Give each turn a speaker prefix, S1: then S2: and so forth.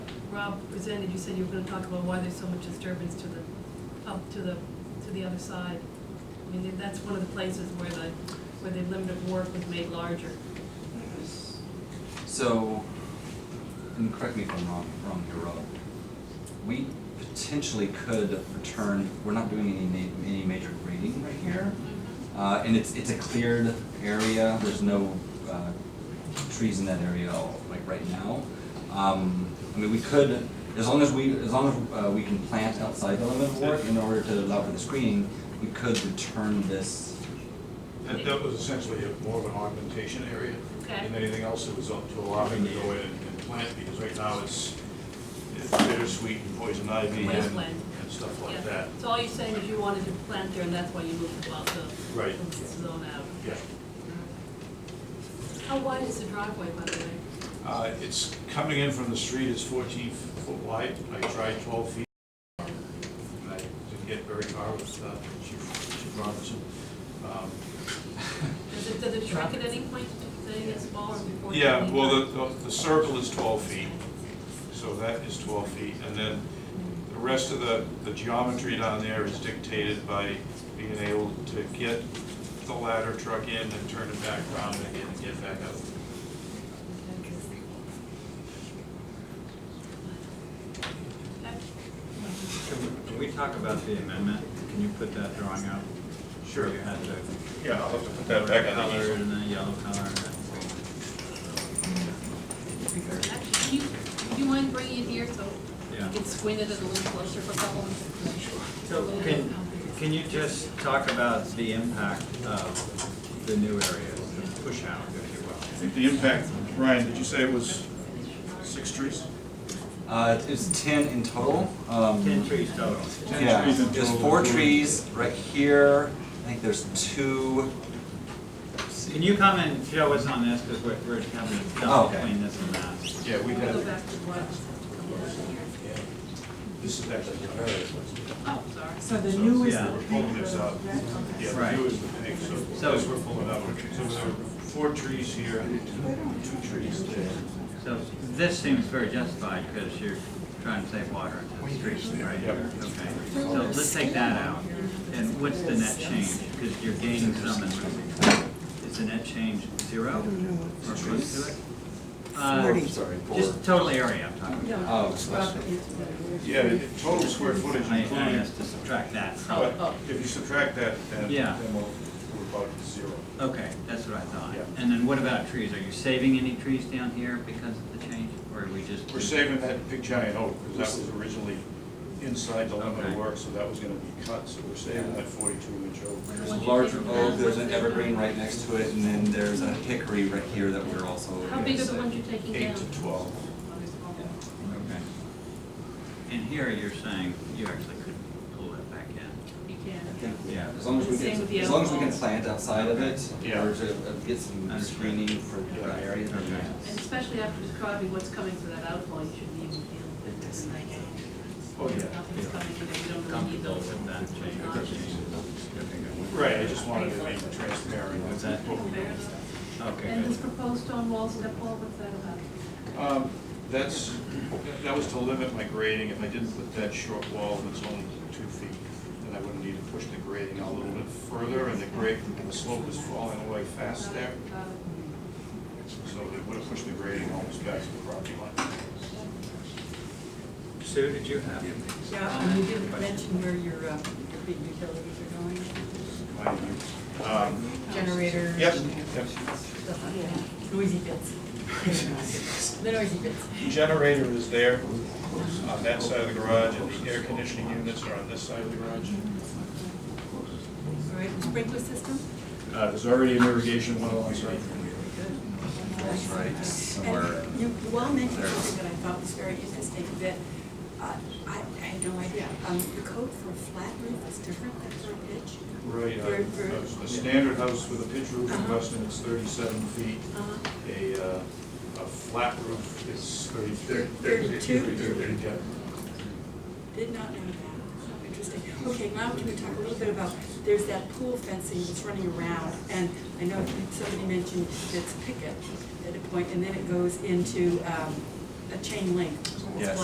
S1: Rob presented, you said you were gonna talk about why there's so much disturbance to the, up to the, to the other side. I mean, that's one of the places where the, where the limit of work was made larger.
S2: So, and correct me if I'm wrong, wrong here, Rob. We potentially could return, we're not doing any ma- any major grading right here.
S3: Mm-hmm.
S2: Uh, and it's, it's a cleared area, there's no, uh, trees in that area all- like right now. Um, I mean, we could, as long as we, as long as, uh, we can plant outside the limit of work in order to allow for the screening, we could return this,
S3: That, that was essentially a- more of an augmentation area.
S1: Okay.
S3: And anything else that was up to allowing to go in and and plant, because right now it's it's bittersweet and poison ivy and
S1: Wasteland.
S3: and stuff
S1: Yeah.
S3: like that.
S1: So all you're saying is you wanted to plant there, and that's why you moved about the.
S3: Right.
S1: the Zone out.
S3: Yeah.
S1: How wide is the driveway, by the way?
S3: Uh, It's, coming in from the street is fourteen foot wide. I tried twelve feet. and I didn't get very far with uh, Chief Chief Robinson. Um,
S1: Does it, does it shrink at any point, if it gets smaller before? you
S3: Yeah,
S1: leave?
S3: well, the- the, the circle is twelve feet, so that is twelve feet, and then the rest of the, the geometry down there is dictated by being able to get the ladder truck in and turn it back around again and get back out.
S1: Okay.
S4: Can we talk about the amendment? Can you put that drawing up?
S3: Sure.
S4: You had the
S3: Yeah, I'll have to put
S4: red color and the yellow color. and that-
S1: Actually, can you, do you mind bringing it here so you
S4: Yeah.
S1: can squint at it a little closer for a couple? Sure.
S4: So can, can you just talk about the impact of the new area, the push out, if you
S3: I
S4: will?
S3: think the impact, Ryan, did you say it was six trees?
S2: uh, it's ten in total, um.
S4: Ten trees total.
S3: Ten
S2: Yeah,
S3: trees in
S2: there's
S3: total,
S2: four
S3: including-
S2: trees right here, I think there's two. let's see.
S4: Can you comment, Joe, what's on this, because we're, we're having to
S2: Oh,
S4: jump
S2: okay.
S4: between this and that.
S3: Yeah, we had,
S1: Go back to what?
S3: this is actually the
S1: Oh, sorry.
S5: So the new is
S4: Yeah,
S5: the
S3: we're
S5: big,
S3: pulling this
S5: the
S3: up.
S5: red, okay.
S3: Yeah,
S4: Right.
S3: the two is the thing, so
S4: So-
S3: as we're pulling up, so there are four trees here, two trees there.
S4: So this seems very justified, because you're trying to save water in the streets, right?
S3: Yep.
S4: Okay, so let's take that out, and what's the net change? Because you're gaining some, and is the net change zero, or close to it? Uh,
S2: Forty. Sorry, four.
S4: Just total area I'm talking about.
S2: Oh, gosh.
S3: Yeah, the total square footage
S4: I, I
S3: including,
S4: asked to subtract that from,
S3: but if you subtract that, then,
S4: Yeah.
S3: then we're we're about to zero.
S4: okay, that's what I thought.
S3: Yeah.
S4: And then what about trees? Are you saving any trees down here because of the change, or are we just?
S3: We're saving that big giant oak, because that was originally inside the limit of
S4: Okay.
S3: work, so that was gonna be cut, so we're saving that forty-two inch oak.
S2: There's a larger oak, there's an evergreen right next to it, and then there's a hickory right here that we're also.
S1: How big are the ones you're taking down?
S3: Eight to twelve.
S4: Okay. And here you're saying you actually could pull that back in.
S1: You can.
S4: Yeah.
S2: As long as we
S1: Same with
S2: can,
S1: the
S2: as long as we can
S1: elbows.
S2: plant outside of it,
S3: Yeah.
S2: or to uh, get some
S4: Understood.
S2: screening for the area. then
S4: Okay.
S1: And especially after describing what's coming for that outfall, you shouldn't even feel that there's an idea.
S3: Oh, yeah.
S1: Nothing's coming, you know, you don't really need those.
S4: Comfortable with that change?
S3: Right, I just wanted to make it transparent.
S4: What's that?
S3: What we did.
S4: Okay,
S1: And this
S4: good.
S1: proposed stone wall step wall, what's that about?
S3: Um, That's, that was to limit my grading, if I didn't put that short wall that's only two feet, then I wouldn't need to push the grading a little bit further, and the grade, the slope is falling away fast there,
S1: Uh,
S3: so it would have pushed the grading almost back to the property line.
S4: Sue, did you have?
S5: Yeah, and you didn't mention where your, uh, your big utilities are going,
S3: My, um,
S5: generators.
S3: Yep,
S5: and
S3: yep.
S5: stuff like that. Noisy bits. The noisy bits.
S3: The generator is there on that side of the garage, and the air conditioning units are on this side of the garage.
S5: All right, sprinkler system?
S3: Uh, There's already an irrigation one alongside.
S2: That's right, somewhere.
S5: And you, you all mentioned something that I thought was very interesting, that, uh, I, I had no idea, um, the code for a flat roof is different than for a pitch?
S3: Right, uh,
S5: Very, very-
S3: a standard house with a pitch roof in Weston is thirty-seven feet.
S5: Uh-huh.
S3: A, uh, a flat roof is thirty-three.
S5: Thirty-two.
S3: Yeah.
S5: Did not know that. So Interesting. Okay, now can we talk a little bit about, there's that pool fencing that's running around, and I know somebody mentioned it's picket at a point, and then it goes into um, a chain link. It's
S2: Yes.